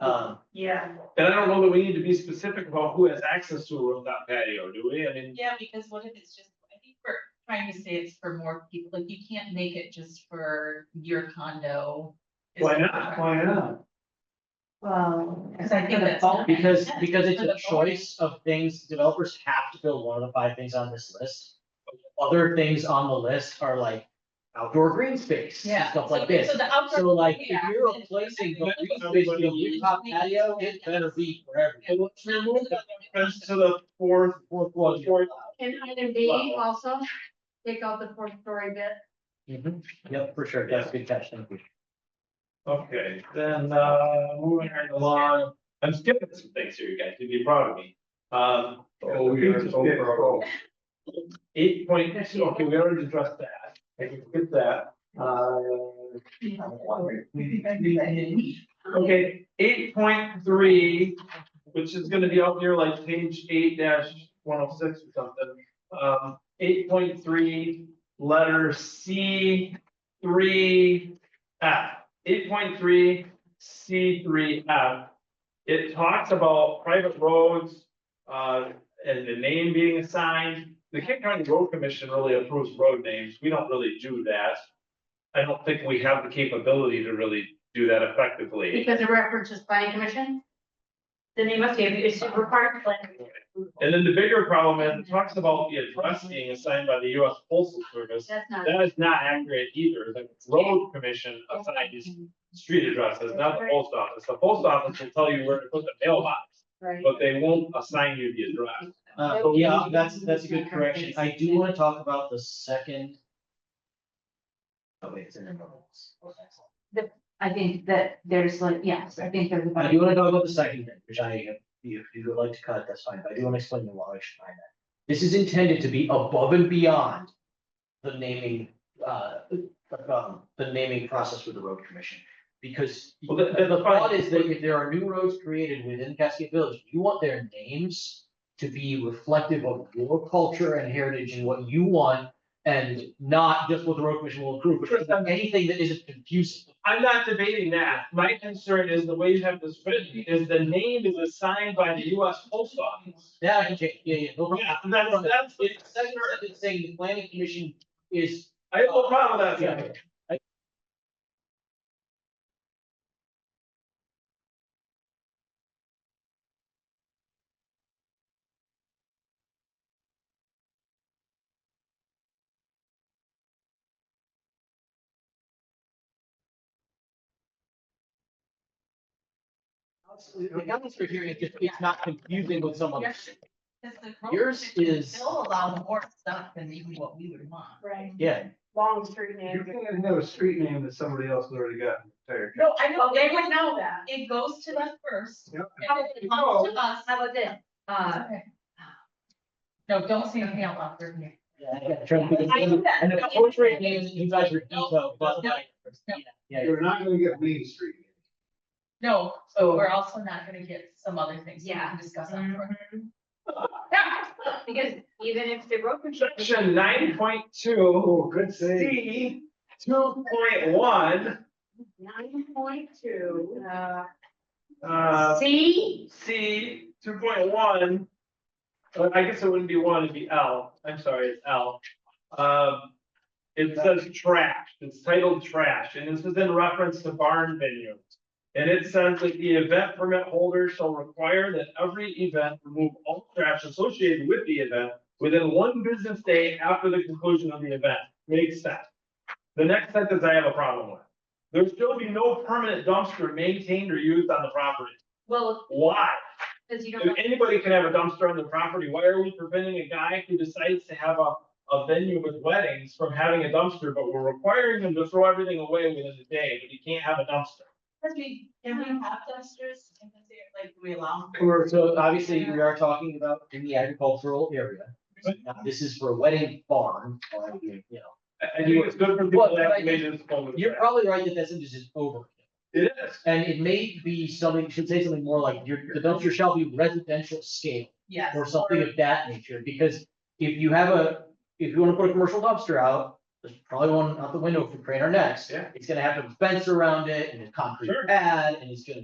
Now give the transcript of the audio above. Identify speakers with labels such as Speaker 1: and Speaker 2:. Speaker 1: Uh,
Speaker 2: Yeah.
Speaker 3: And I don't know that we need to be specific about who has access to a rooftop patio, do we? I mean,
Speaker 4: Yeah, because what if it's just, I think we're trying to say it's for more people, like you can't make it just for your condo. Is
Speaker 3: why
Speaker 4: that
Speaker 3: not?
Speaker 4: correct?
Speaker 3: Why not?
Speaker 2: Well.
Speaker 4: Because I think that's not-
Speaker 1: because, because it's
Speaker 4: For the
Speaker 1: a choice of things, developers have to build one of the five things on this list. Other things on the list are like outdoor green space, and
Speaker 4: Yeah.
Speaker 1: stuff
Speaker 4: so-
Speaker 1: like this.
Speaker 4: So the outdoor.
Speaker 1: So like, if
Speaker 4: yeah,
Speaker 1: you're
Speaker 4: then-
Speaker 1: replacing
Speaker 3: then
Speaker 1: the green
Speaker 3: somebody
Speaker 1: space with a
Speaker 3: will use
Speaker 1: rooftop
Speaker 4: it.
Speaker 1: patio, it better be for everyone.
Speaker 3: Friends to the fourth,
Speaker 1: Fourth
Speaker 3: floor is your
Speaker 2: Can either be
Speaker 3: Wow.
Speaker 2: also take out the fourth story bit.
Speaker 1: Mhm. Yep, for sure, that's a good catch, thank you.
Speaker 3: okay, then, uh, moving right along, I'm skipping some things here, you guys, you'd be proud of me. Um.
Speaker 5: Oh, we are so proud.
Speaker 3: Eight point, okay, we already addressed that, I can skip that, uh. Okay, eight point three, which is gonna be out near like page eight one oh six or something. Um, eight point three, letter C three F. Eight point three, C three F. It talks about private roads, uh, and the name being assigned. The Kent County Road Commission really approves road names. We don't really do that. I don't think we have the capability to really do that effectively.
Speaker 2: Because it references planning commission? Then they must be, it's required planning. commission.
Speaker 3: And then the bigger problem, is it talks about the address being assigned by the US Postal Service.
Speaker 2: That's not.
Speaker 3: That is not accurate either. The road commission assigns street addresses, not the post office. The post office will tell you where to put the mailbox,
Speaker 2: Right.
Speaker 3: but they won't assign you the address.
Speaker 1: Uh,
Speaker 2: That would
Speaker 1: yeah,
Speaker 2: be-
Speaker 1: that's, that's a good correction. I do wanna talk about the second. Oh, wait, it's in the notes.
Speaker 6: I think that there's like, yes, I think there's.
Speaker 1: I do wanna talk about the second thing, which I, if you if you would like to cut, that's fine, but I do wanna explain the why I should find that. This is intended to be above and beyond the naming, uh, um, the naming process with the road commission. Because
Speaker 3: Well, the- the-
Speaker 1: the thought is that if there are new roads created within Cascade Village, you want their names to be reflective of your culture and heritage and what you want and not just what the road commission will approve, which is anything that isn't confusing.
Speaker 3: I'm not debating that. My concern is the way you have this written is the name is assigned by the US Post Office.
Speaker 1: Yeah, I can change, yeah, yeah, no problem.
Speaker 3: Yeah, and that's, that's,
Speaker 1: It's second sentence saying the planning commission is.
Speaker 3: I have no problem with that. Sam.
Speaker 1: The guidance for hearing is just, it's not confusing with someone.
Speaker 4: Yours is the road
Speaker 1: Yours
Speaker 4: commission
Speaker 1: is-
Speaker 4: Still allow more stuff than even what we would want.
Speaker 2: Right.
Speaker 1: Yeah,
Speaker 2: Long street
Speaker 5: You
Speaker 2: name.
Speaker 5: can't have a street name that somebody else has already got. Tired.
Speaker 4: No, I
Speaker 2: Well,
Speaker 4: know,
Speaker 2: they would know that.
Speaker 4: It goes to them first.
Speaker 5: Yep.
Speaker 4: And if it comes
Speaker 2: Oh.
Speaker 4: to us.
Speaker 2: How about this?
Speaker 6: Uh,
Speaker 4: Okay. No, don't say anything out loud for me.
Speaker 1: yeah, yeah, trying to think
Speaker 4: I
Speaker 1: of-
Speaker 4: knew that.
Speaker 1: And the portrait names, you guys are detailed, but
Speaker 4: No,
Speaker 1: like.
Speaker 4: no.
Speaker 1: Yeah,
Speaker 5: You're not gonna get Main Street.
Speaker 4: No, but we're also not gonna get some other things we
Speaker 6: Yeah.
Speaker 4: can discuss afterwards.
Speaker 6: because even if the road construction.
Speaker 3: Section nine point two,
Speaker 5: Oh, good save.
Speaker 3: C, two point one,
Speaker 2: Nine point two, uh,
Speaker 3: uh,
Speaker 2: C,
Speaker 3: C, two point one. I guess it wouldn't be one, it'd be L, I'm sorry, it's L. Um, it says trash, it's titled trash, and this is in reference to barn venues. And it says that the event permit holder shall require that every event remove all trash associated with the event within one business day after the conclusion of the event, makes sense. The next sentence I have a problem with. There shall be no permanent dumpster maintained or used on the property.
Speaker 6: Well,
Speaker 3: Why?
Speaker 6: because you don't.
Speaker 3: If anybody can have a dumpster on their property, why are we preventing a guy who decides to have a, a venue with weddings from having a dumpster, but we're requiring him to throw everything away within a day, but he can't have a dumpster?
Speaker 4: Cause we, can we have dumpsters? And is there, Like, do we allow?
Speaker 1: We're- so obviously, we are talking about in the agricultural area. Now, This is for a wedding barn, or, you know,
Speaker 3: I, I think it's good for people
Speaker 1: Well,
Speaker 3: to
Speaker 1: but I
Speaker 3: have major disposal.
Speaker 1: you're probably right that that's just over.
Speaker 3: It is.
Speaker 1: And it may be something, should say something more like, your, the dumpster shall be residential scale.
Speaker 4: Yes.
Speaker 1: or something of that nature, because if you have a, if you wanna put a commercial dumpster out, there's probably one out the window from Crane or Next.
Speaker 3: Yeah.
Speaker 1: It's gonna have a fence around it and a concrete
Speaker 3: Sure.
Speaker 1: pad, and it's gonna